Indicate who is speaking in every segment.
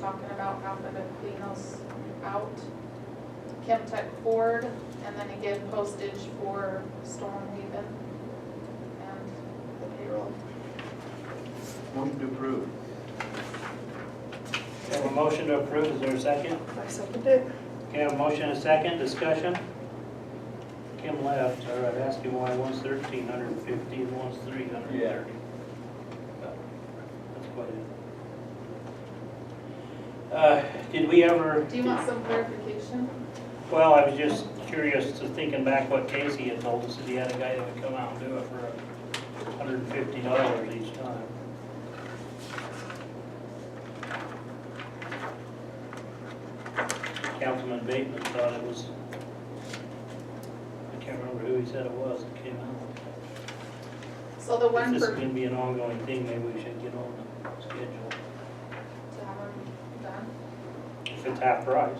Speaker 1: talking about after the clean house out. Chem Tech Ford, and then again postage for Storm Haven and the payroll.
Speaker 2: Move to approve.
Speaker 3: We have a motion to approve, is there a second?
Speaker 4: I second it.
Speaker 3: Okay, a motion and a second, discussion? Kim left, all right, ask him why one's thirteen hundred and fifty and one's three hundred and thirty. That's quite it. Uh, did we ever?
Speaker 1: Do you want some clarification?
Speaker 3: Well, I was just curious to thinking back what Casey had told us, that he had a guy that would come out and do it for hundred and fifty dollars each time. Councilman Bateman thought it was, I can't remember who he said it was that came out.
Speaker 1: So the
Speaker 3: If
Speaker 1: one
Speaker 3: this
Speaker 1: for,
Speaker 3: is
Speaker 1: to
Speaker 3: gonna be an ongoing thing, maybe we should get on the schedule,
Speaker 1: have them done.
Speaker 3: if it's half price.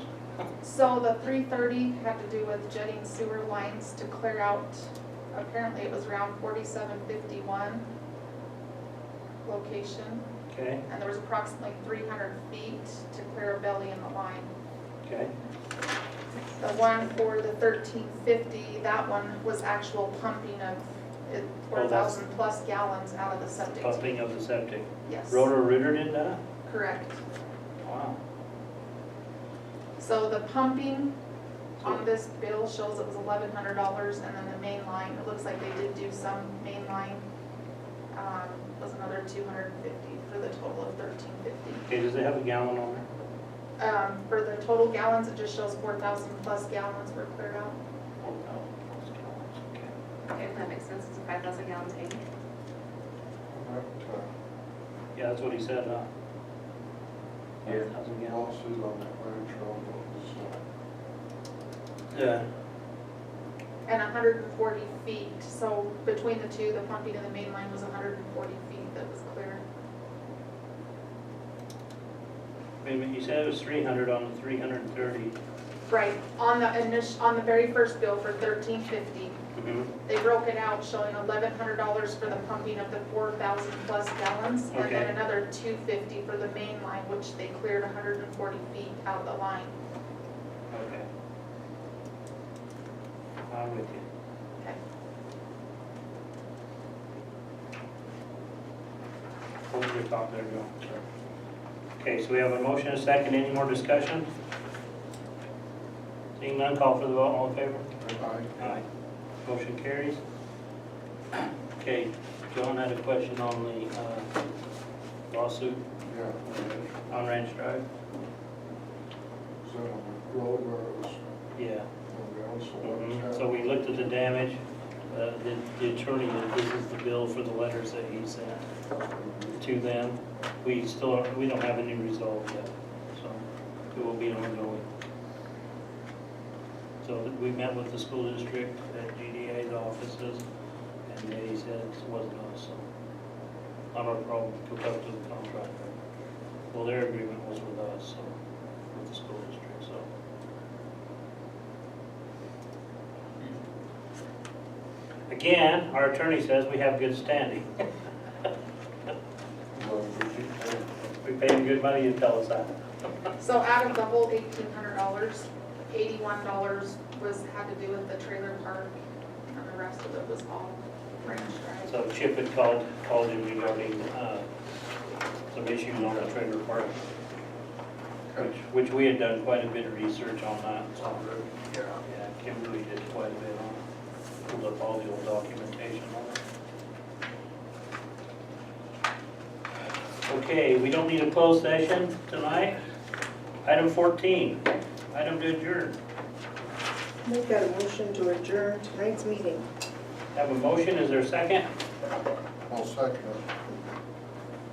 Speaker 1: So the three thirty had to do with jetting sewer lines to clear out, apparently it was around forty-seven fifty-one location,
Speaker 3: Okay,
Speaker 1: and there was approximately three hundred feet to clear a belly in the line.
Speaker 3: okay,
Speaker 1: The one for the thirteen fifty, that one was actual pumping of four thousand plus gallons out of the septic.
Speaker 3: pumping of the septic.
Speaker 1: Yes,
Speaker 3: Rotor Rooter did that?
Speaker 1: correct.
Speaker 3: Wow.
Speaker 1: So the pumping on this bill shows it was eleven hundred dollars, and then the main line, it looks like they did do some main line, um, was another two hundred and fifty for the total of thirteen fifty.
Speaker 3: Okay, does it have a gallon on there?
Speaker 1: Um, for the total gallons, it just shows four thousand plus gallons were cleared out.
Speaker 3: Okay.
Speaker 5: Okay, if that makes sense, it's a five thousand gallon tank.
Speaker 3: Yeah, that's what he said, huh?
Speaker 2: Yeah.
Speaker 3: 5,000 gallons.
Speaker 6: Lawsuit on that ranch road, was,
Speaker 3: Yeah.
Speaker 1: And hundred and forty feet, so between the two, the pumping and the main line was hundred and forty feet that was clear.
Speaker 3: Wait a minute, you said it was three hundred on the three hundred and thirty.
Speaker 1: Right, on the initial, on the very first bill for thirteen fifty, They broke it out showing eleven hundred dollars for the pumping of the four thousand plus gallons, and
Speaker 3: Okay.
Speaker 1: then another two fifty for the main line, which they cleared hundred and forty feet out of the line.
Speaker 3: Okay. I'm with you.
Speaker 1: Okay.
Speaker 3: Hold your thought there, Joe. Okay, so we have a motion, a second, any more discussion? Seeing none, call for the vote, all in favor?
Speaker 6: uh,
Speaker 3: Aye. Motion carries. Okay, John had a question on the uh, lawsuit
Speaker 6: yeah, ranch,
Speaker 3: on Ranch Drive.
Speaker 6: was that on the road where it was,
Speaker 3: Yeah.
Speaker 6: on the
Speaker 3: Mhm.
Speaker 6: outside?
Speaker 3: So we looked at the damage, uh, the the attorney, that this is the bill for the letters that he sent to them. We still, aren't- we don't have any resolve yet, so it will be ongoing. So that we met with the school district at GDA's offices, and they said it wasn't us, so not our problem, hook up to the contractor. Well, their agreement was with us, so, with the school district, so. Again, our attorney says we have good standing.
Speaker 6: Well, we keep going.
Speaker 3: We pay him good money to tell us that.
Speaker 1: So out of the whole eighteen hundred dollars, eighty-one dollars was, had to do with the trailer park, and the rest of it was all ranch drive.
Speaker 3: So Chip had called, called him regarding, uh, some issues on the trailer park, which, which we had done quite a bit of research on that, so.
Speaker 6: Yeah,
Speaker 3: Yeah, Kimberly did quite a bit on it, pulled up all the old documentation on it. Okay, we don't need a closed session tonight. Item fourteen, item to adjourn.
Speaker 4: Make that a motion to adjourn tonight's meeting.
Speaker 3: Have a motion, is there a second?
Speaker 6: I'll second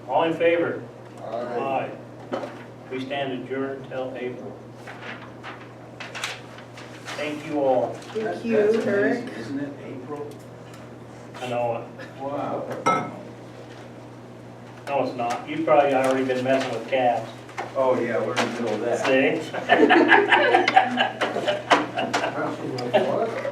Speaker 3: All in favor?
Speaker 6: it. Aye.
Speaker 3: Aye. We stand adjourned till April. Thank you all.
Speaker 4: Thank you, Eric.
Speaker 2: Isn't it April?
Speaker 3: I know, it.
Speaker 2: Wow.
Speaker 3: no, it's not. You've probably already been messing with calves.
Speaker 2: Oh, yeah, we're in the middle of that.
Speaker 3: See?
Speaker 6: Passing my water.